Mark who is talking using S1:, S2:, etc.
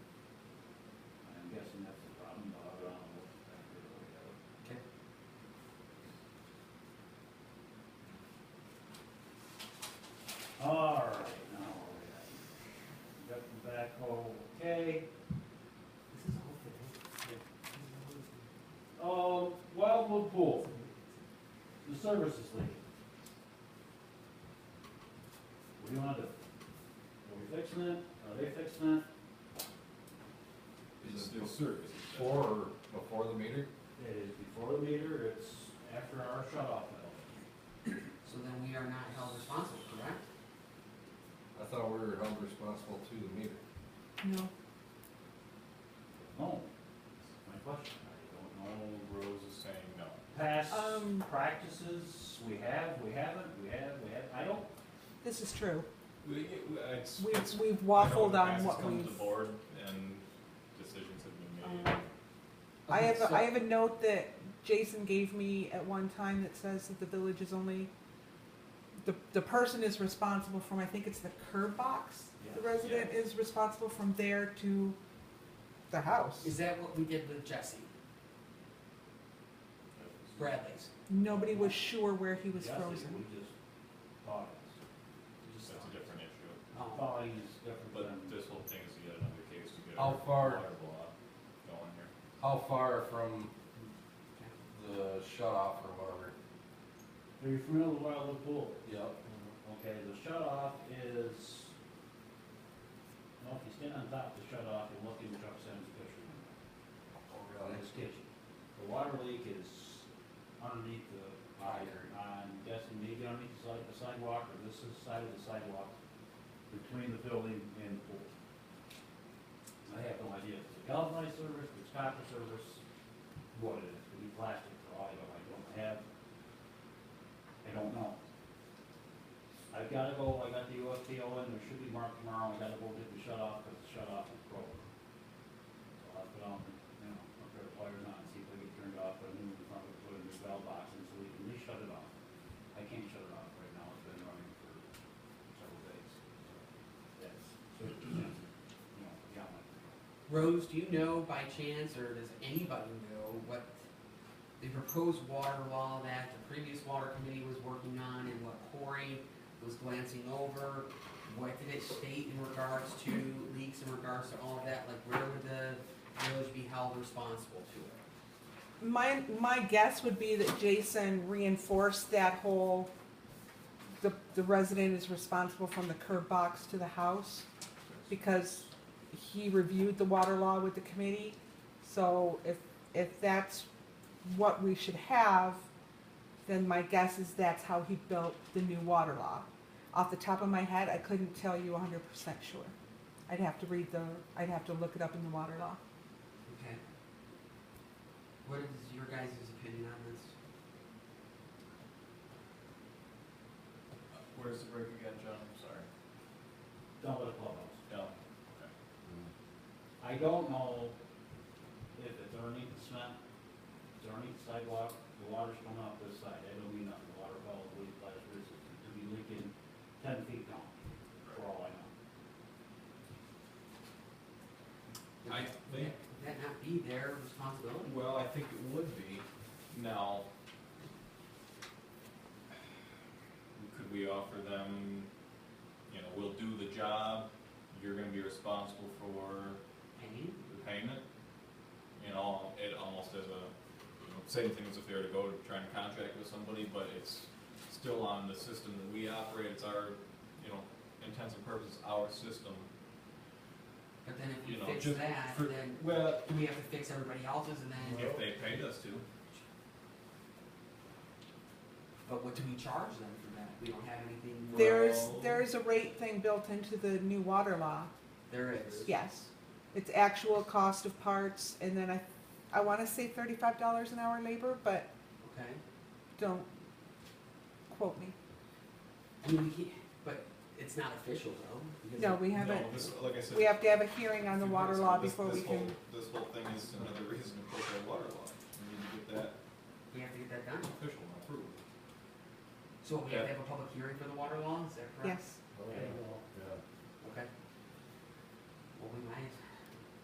S1: Um, Services League. What do you wanna do? Are we fixing it? Are they fixing it?
S2: It's
S3: Is
S2: still
S3: it
S2: serious.
S3: before or before the meter?
S1: It is before the meter, it's after our shut off valve.
S4: So then we are not held responsible, correct?
S3: I thought we were held responsible to the meter.
S5: No,
S1: No, Oh, my question, I don't know.
S2: Rose is saying no.
S1: Past
S5: Um.
S1: practices, we have, we haven't, we have, we have, I don't,
S5: this is true.
S2: We, it's,
S5: We've,
S2: it's.
S5: we've
S2: I know in
S5: waffled
S2: the
S5: on
S2: past it's
S5: what
S2: come to
S5: we've. Um,
S2: the board and decisions have been made.
S5: I
S4: Okay,
S5: have, a
S4: so-
S5: I have a note that Jason gave me at one time that says that the village is only, the, the person is responsible from, I think it's the curb box. The
S1: Yeah.
S5: resident is responsible from there to the house.
S4: Is that what we did with Jesse Bradley's?
S5: Nobody was sure where he was
S1: yes, we just
S5: frozen.
S1: thought it's,
S2: That's a different issue.
S4: Oh,
S1: thought he's different
S2: But
S1: than.
S2: this whole thing is yet another case to get.
S3: How
S2: our
S3: far-
S2: Water law going here.
S3: How far from the shut off or whatever?
S1: Are you familiar with Wildwood Pool?
S3: Yep.
S1: Okay, the shut off is, no, if you stand on top of the shut off, you're looking at Chuck Simmons' picture. On his kitchen. The water leak is underneath the pipe, I'm guessing maybe underneath the side- the sidewalk, or this is side of the sidewalk, between the building and the pool. I have no idea if it's a galvanized service, if it's copper service, what it is, could be plastic for all I know, I don't have, I don't know. I've gotta go, I got the USPO in, there should be marked tomorrow, I gotta go get the shut off, cause the shut off is broken. So I'll put on, you know, a pair of pliers on, see if I can turn it off, put a new one in front of it, put a new valve box in, so we can at least shut it off. I can't shut it off right now, it's been running for several days, so that's, so, you know, got my.
S4: Rose, do you know by chance, or does anybody know what the proposed water law that the previous water committee was working on and what Corey was glancing over? What did it state in regards to leaks, in regards to all of that? Like, where would the village be held responsible to it?
S5: My, my guess would be that Jason reinforced that whole, the, the resident is responsible from the curb box to the house. because he reviewed the water law with the committee. So if, if that's what we should have, then my guess is that's how he built the new water law. Off the top of my head, I couldn't tell you hundred percent sure. I'd have to read the, I'd have to look it up in the water law.
S4: Okay. What is your guys' opinion on this?
S2: Where's the break again, John? I'm sorry.
S1: Down by the clubhouse.
S2: No.
S1: I don't know if it's underneath the cement, it's underneath the sidewalk, the water's coming off this side, I don't mean nothing, the water probably last resistance, it could be leaking ten feet down, for all I know.
S2: I
S4: Would
S2: think,
S4: that- would that not be their responsibility?
S2: well, I think it would be. Now, could we offer them, you know, we'll do the job, you're gonna be responsible for
S4: Paying?
S2: the payment, you know, it almost as a, you know, same thing as if they were to go to try and contract with somebody, but it's still on the system that we operate, it's our, you know, intents and purposes, our system,
S4: But then if
S2: you
S4: we
S2: know,
S4: fix
S2: just
S4: that,
S2: for-
S4: then
S2: Well,
S4: do we have to fix everybody else's and then,
S2: if they paid us to,
S4: but what do we charge them for that? We don't have anything.
S5: There's,
S2: Well-
S5: there's a rate thing built into the new water law,
S4: There is.
S5: yes. It's actual cost of parts and then I, I wanna say thirty-five dollars an hour labor, but
S4: Okay.
S5: don't quote me.
S4: I mean, we can't, but it's not official though. because
S5: No,
S4: it-
S5: we haven't,
S2: no, this, like I said.
S5: we have to have a hearing on the
S2: This-
S5: water law
S2: this-
S5: before
S2: this
S5: we can,
S2: whole- This whole thing is another reason to push our water law, we need to get that
S4: We have to get that done.
S2: official and approved.
S4: So we have
S2: Yeah.
S4: to have a public hearing for the water law, is that correct?
S5: yes.
S1: Okay, well,
S3: Yeah.
S4: Okay. Well, we might as